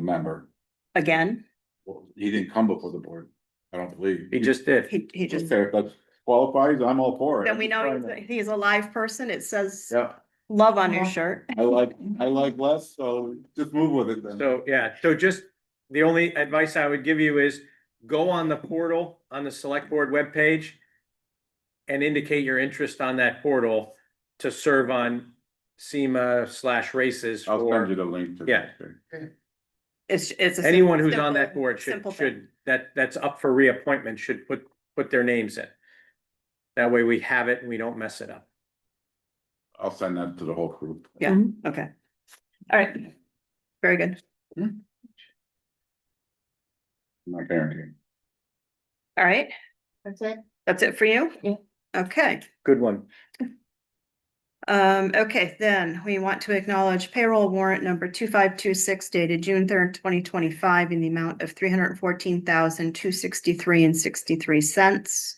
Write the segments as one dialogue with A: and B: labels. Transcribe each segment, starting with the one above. A: member.
B: again.
A: Well, He didn't come before the board, I don't believe.
C: He just did.
B: He, he just,
A: Okay, if that qualifies, I'm all for it.
B: then we know
A: I'm
B: he's- he's a live person. It says
C: Yeah,
B: love on your shirt.
A: trying to- I like, I like less, so just move with it then.
C: so, yeah, so just, the only advice I would give you is go on the portal, on the select board webpage. And indicate your interest on that portal to serve on SEMA slash races
A: I'll send you
C: for
A: the link to.
C: Yeah.
B: It's, it's. a sim-
C: anyone who's on that
B: simple-
C: board should,
B: simple thing.
C: should, that, that's up for reappointment, should put, put their names in. That way we have it and we don't mess it up.
A: I'll send that to the whole group.
B: Yeah, okay. All right. Very good.
A: My parenting.
B: All right.
D: That's it.
B: That's it for you?
D: Yeah.
B: Okay,
C: Good one.
B: um, okay, then we want to acknowledge payroll warrant number two five two six dated June third, twenty twenty five in the amount of three hundred and fourteen thousand, two sixty three and sixty three cents.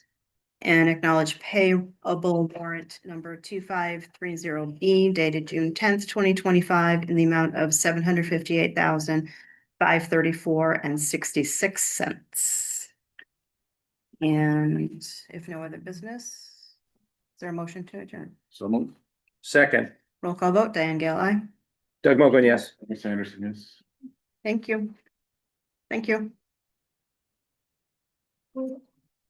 B: And acknowledge payable warrant number two five three zero B dated June tenth, twenty twenty five in the amount of seven hundred fifty eight thousand, five thirty four and sixty six cents. And if no other business, is there a motion to adjourn?
A: So move.
C: Second,
B: Roll call vote, Diane Gale, aye.
C: Doug Mogul, yes.
A: Miss Anderson, yes.
B: Thank you. Thank you.